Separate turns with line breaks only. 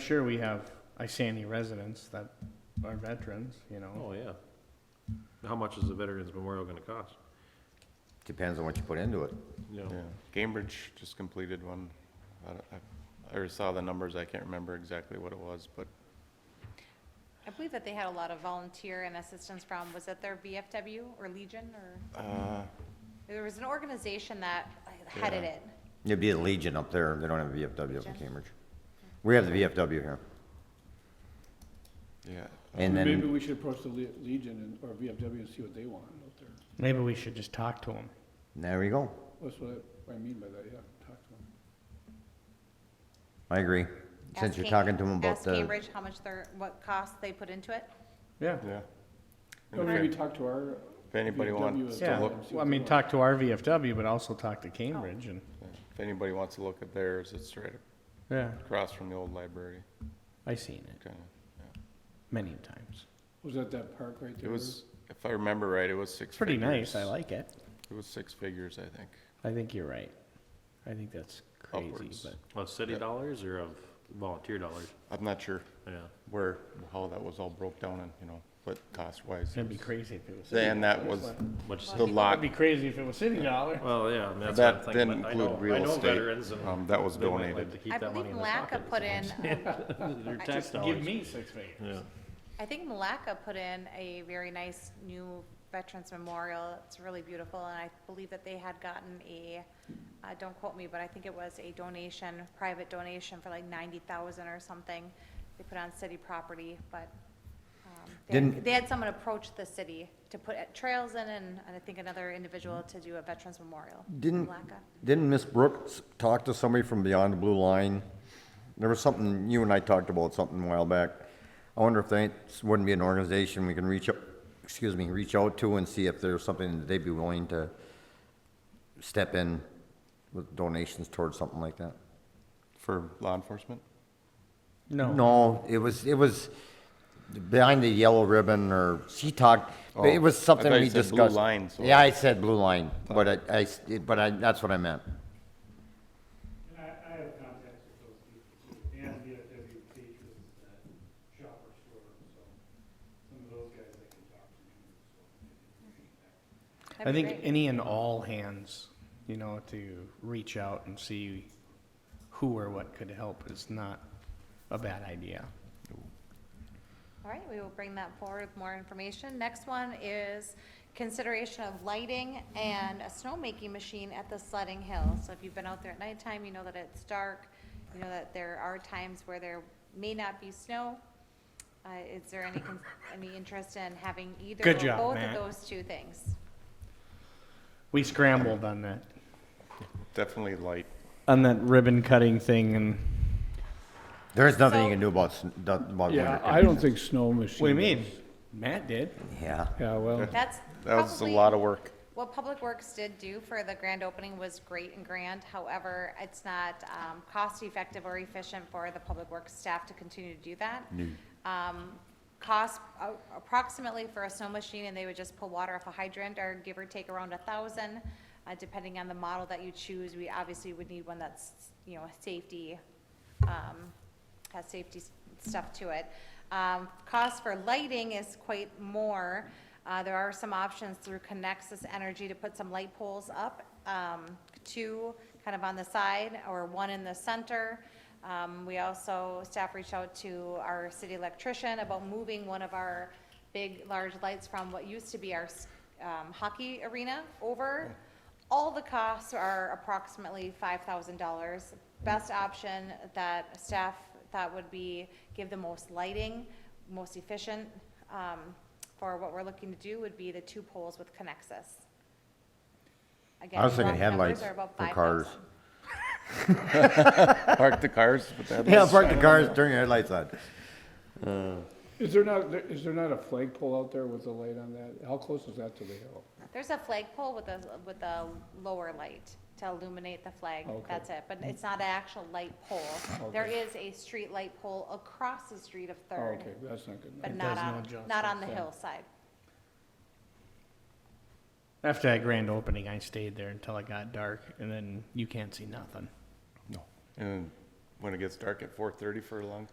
sure we have Isani residents that are veterans, you know.
Oh, yeah. How much is the Veterans Memorial gonna cost?
Depends on what you put into it.
You
Yeah,
know,
Cambridge just completed one. I, don't- I- I already saw the numbers, I can't remember exactly what it was, but
I believe that they had a lot of volunteer and assistance from, was that their VFW or Legion or,
uh,
there was an organization that headed
Yeah.
it.
It'd be the Legion up there, they don't have a VFW up in Cambridge. We have the VFW here,
yeah.
and
Maybe
then,
we should approach the Le- Legion and, or VFW and see what they want out there.
Maybe we should just talk to them.
there we go,
That's what I, what I mean by that, yeah, talk to them.
I agree. Since
Ask
you're
Cam-
talking to them about
Ask
the,
Cambridge how much their, what cost they put into it.
Yeah.
Yeah.
Or
Okay.
maybe talk to our.
If anybody
VFW
wants
as
to
Yeah,
well
look,
and see
well, I
what they
mean,
want.
talk to our VFW, but also talk to Cambridge and,
if anybody wants to look at theirs, it's right
Oh. yeah,
across from the old library,
I seen it
kinda.
many times.
Was that that park right
It
there?
was, if I remember right, it was six
It's pretty nice, I
figures.
like it.
It was six figures, I think.
I think you're right. I think that's crazy,
Upwards.
but
Of city
Yeah.
dollars or of volunteer dollars?
I'm not sure
Yeah.
where, how that was all broke down and, you know, but cost wise.
it'd be crazy if it was. city
And that
dollars,
was
but-
Which,
the
It'd
lot,
be crazy if it was city dollar.
well, yeah, I mean, that's what I'm
that
thinking.
didn't
but I know-
include real
I know
estate,
veterans and
um, that was
they might like
donated.
to keep
I
that
believe
money in their
Malacca
pocket,
put
so-
in,
Their
I-
tax
Give
dollars.
me six figures.
Yeah.
I think Malacca put in a very nice new Veterans Memorial. It's really beautiful, and I believe that they had gotten a, uh, don't quote me, but I think it was a donation, private donation for like ninety thousand or something. They put on city property, but, um, they
Didn't-
had- they had someone approach the city to put uh, trails in, and, and I think another individual to do a Veterans Memorial. in
didn't,
Malacca.
didn't Miss Brooks talk to somebody from Beyond the Blue Line? There was something, you and I talked about something a while back. I wonder if that wouldn't be an organization we can reach, out- excuse me, reach out to and see if there's something that they'd be willing to step in with donations towards something like that.
for law enforcement.
No,
No, it was, it was behind the yellow ribbon or she talked, it was
Oh, I
something
thought you
we
said
discussed.
blue line, so- Oh.
Yeah, I said blue line, but I- I, s- it- but I, that's what I meant.
And I, I have contacts with those people too, and VFW teachers that shop or store, so some of those guys I can talk to, so.
That'd
I
be
think
great.
any and all hands, you know, to reach out and see who or what could help is not a bad idea.
All right, we will bring that forward with more information. Next one is consideration of lighting and a snowmaking machine at the sledding hill. So if you've been out there at nighttime, you know that it's dark, you know that there are times where there may not be snow. Uh, is there any, con- any interest in having either or
Good job,
both
Matt.
of those two things?
We scrambled on that,
Definitely light.
on that ribbon cutting thing and.
There's nothing you
So-
can do about, s- do- about winter
Yeah, I don't
conditions.
think snow machine.
What do you mean? Matt did.
Yeah,
Yeah, well,
That's
That was a
probably-
lot of work.
What Public Works did do for the grand opening was great and grand, however, it's not, um, cost-effective or efficient for the Public Works staff to continue to do that. Um, cost uh, approximately for a snow machine, and they would just pull water off a hydrant, are give or take around a thousand, uh, depending on the model that you choose, we obviously would need one that's, you know, a safety, um, has safety s- stuff to it. Um, cost for lighting is quite more. Uh, there are some options through Conexus Energy to put some light poles up, um, two kind of on the side or one in the center. Um, we also, staff reached out to our city electrician about moving one of our big, large lights from what used to be our, s- um, hockey arena over. All the costs are approximately five thousand dollars. Best option that staff thought would be give the most lighting, most efficient, um, for what we're looking to do would be the two poles with Conexus. Again,
I was thinking
rough numbers
headlights
are about
for cars.
$5,000.
Park the cars with that.
yeah, park the cars, turn your headlights on.
is there not, is there not a flagpole out there with a light on that? How close is that to the hill?
There's a flagpole with a, with a lower light to illuminate the flag,
Okay.
that's it, but it's not an actual light pole. There is a street light pole across the street of
Oh,
Third,
okay, that's not good.
but
It
not
does no
on,
justice,
not on the
yeah.
hillside.
After that grand opening, I stayed there until it got dark, and then you can't see nothing.
No. And when it gets dark at four thirty for a long